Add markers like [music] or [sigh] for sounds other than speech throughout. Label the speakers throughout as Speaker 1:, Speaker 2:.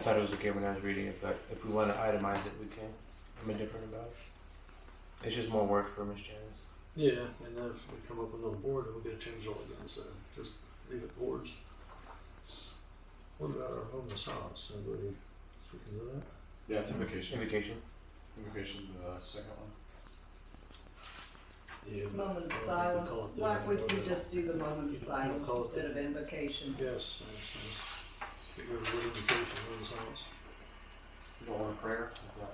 Speaker 1: thought it was okay when I was reading it, but if we want to itemize it, we can. I'm indifferent about it. It's just more work for Miss Janice.
Speaker 2: Yeah, and then if we come up with another board, then we'll get it changed all again, so just leave it boards. What about our home assaults, anybody speaking to that?
Speaker 3: Yeah, it's invocation.
Speaker 1: Invocation.
Speaker 3: Invocation, the second one.
Speaker 2: Yeah, but-
Speaker 4: Moment of
Speaker 2: I don't think we call
Speaker 4: silence.
Speaker 2: it the-
Speaker 4: Why would you just do the moment of silence
Speaker 2: Call it the-
Speaker 4: instead of invocation?
Speaker 2: Yes, yes, yes. Get rid of wood invocation, home assaults.
Speaker 3: You don't want a prayer? Okay.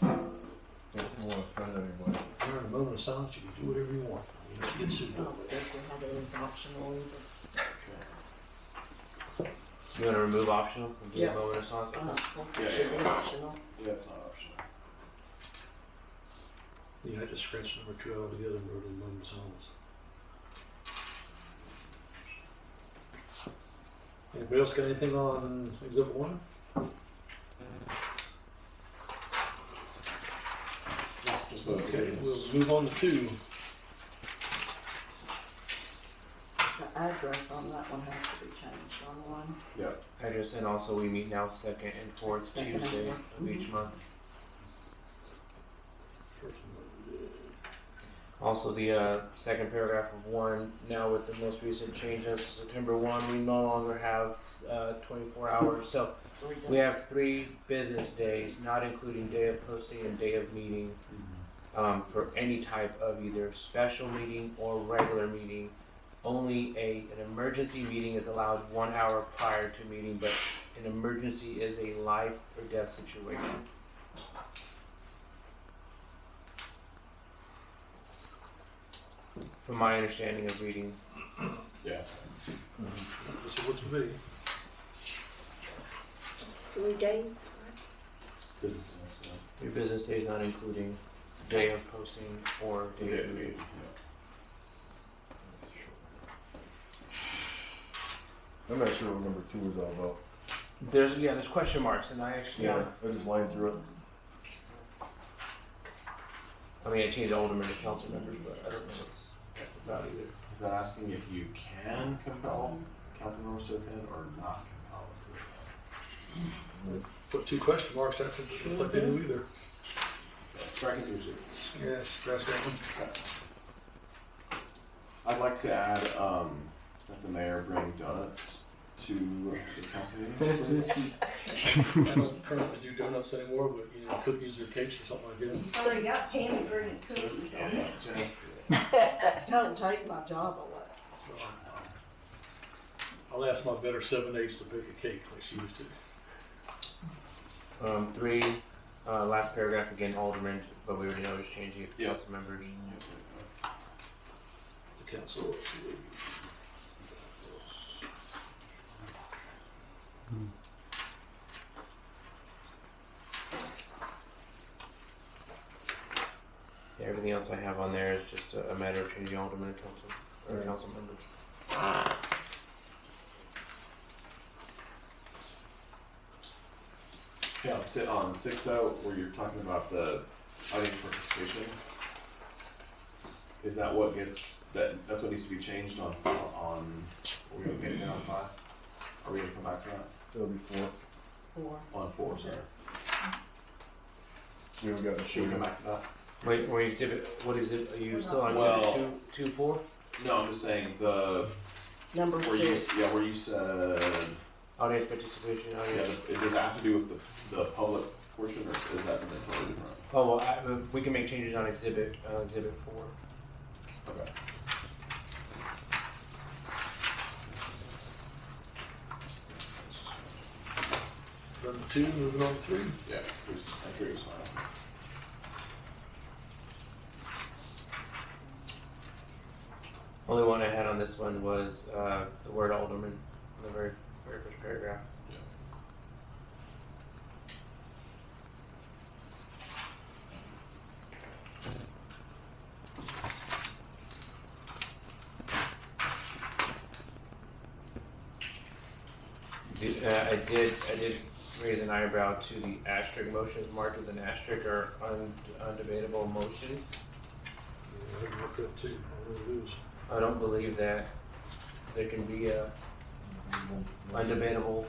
Speaker 5: Don't want to offend anybody.
Speaker 2: During a moment of silence, you can do whatever you want, you don't get sued.
Speaker 4: Oh, have it as optional either.
Speaker 1: You want to remove optional and do
Speaker 4: Yeah.
Speaker 1: a moment of silence?
Speaker 2: Oh.
Speaker 3: Yeah,
Speaker 4: Should be
Speaker 3: yeah.
Speaker 4: optional.
Speaker 3: Yeah, it's not optional.
Speaker 2: Yeah, I just scratched number two out together and wrote in moment of silence. Anybody else got anything on exhibit one?
Speaker 3: Just the
Speaker 2: Okay, we'll move on to two.
Speaker 4: The address on that one has to be changed on one.
Speaker 3: Yeah.
Speaker 1: I just and also we meet now second and fourth
Speaker 4: Second and
Speaker 1: Tuesday
Speaker 4: fourth. Mm-hmm.
Speaker 1: of each month.
Speaker 2: First one,
Speaker 1: Also, the uh, second paragraph of one, now with the most recent change of September 1, we no longer have uh, 24 hours. So we have three business days, not including day of posting and day of meeting, um, for any type of either special meeting or regular meeting. Only a, an emergency meeting is allowed one hour prior to meeting, but an emergency is a life or death situation. From my understanding of reading,
Speaker 3: Yeah.
Speaker 2: This is what to be.
Speaker 6: Three days.
Speaker 3: Business. is, uh,
Speaker 1: Your business day is not including day of posting or
Speaker 3: Yeah,
Speaker 1: day of
Speaker 3: yeah,
Speaker 1: meeting.
Speaker 3: yeah.
Speaker 5: I'm not sure what number two is all about.
Speaker 1: There's yeah, there's question marks, and I actually
Speaker 5: I just lined through it.
Speaker 1: I mean I changed alderman to council members, but I don't know what's about either.
Speaker 3: Is that asking if you can compel council members to attend or not compel them to attend?
Speaker 2: Put two question marks, that could look like they knew either.
Speaker 3: Yeah, Strike it usually.
Speaker 2: Yeah, scratch that one.
Speaker 3: I'd like to add, um, that the mayor bring donuts to the council
Speaker 5: [laughs]
Speaker 3: meeting.
Speaker 2: [laughs] I don't currently do donuts anymore, but you know, cookies or cakes or something like that.
Speaker 4: Well, they Oh, got tangerine
Speaker 3: Just
Speaker 4: cookies on
Speaker 3: kidding,
Speaker 4: it.
Speaker 3: just
Speaker 4: Don't take my job away.
Speaker 2: So I'll ask my better seven eights to bake a cake like she used to.
Speaker 1: Um, three, uh, last paragraph again, alderman, but we already know it's changing it to
Speaker 3: Yeah.
Speaker 1: council members.
Speaker 3: kidding.
Speaker 2: The council.
Speaker 1: Yeah, everything else I have on there is just a, a matter of changing alderman to council or
Speaker 5: Alright.
Speaker 1: council members.
Speaker 3: Yeah, let's sit on six though, where you're talking about the audience participation. Is that what gets, that, that's what needs to be changed on, on, are we gonna get it down on five? Are we gonna come back to that?
Speaker 5: That'll be four.
Speaker 4: Or
Speaker 3: On four, sorry.
Speaker 5: We haven't gotten
Speaker 3: Should we come
Speaker 5: shooting.
Speaker 3: back to that?
Speaker 1: Wait, wait, exhibit, what exhibit, are you still on
Speaker 3: Well-
Speaker 1: exhibit two, two, four?
Speaker 3: No, I'm just saying the,
Speaker 4: number
Speaker 3: where you,
Speaker 4: two.
Speaker 3: yeah, where you said,
Speaker 1: Audience participation,
Speaker 3: yeah,
Speaker 1: audience.
Speaker 3: the- does that have to do with the, the public portion or is that something totally different?
Speaker 1: Oh, well, I, we can make changes on exhibit, uh, exhibit four.
Speaker 3: Okay.
Speaker 2: Number two, moving on to three.
Speaker 3: Yeah, please, I hear you smiling.
Speaker 1: Only one I had on this one was uh, the word alderman in the very, very first paragraph. The- uh, I did, I did raise an eyebrow to the asterisk motions marked with an asterisk or un- undebatable motions.
Speaker 2: Yeah, I didn't look at two. I don't lose.
Speaker 1: I don't believe that there can be a undebatable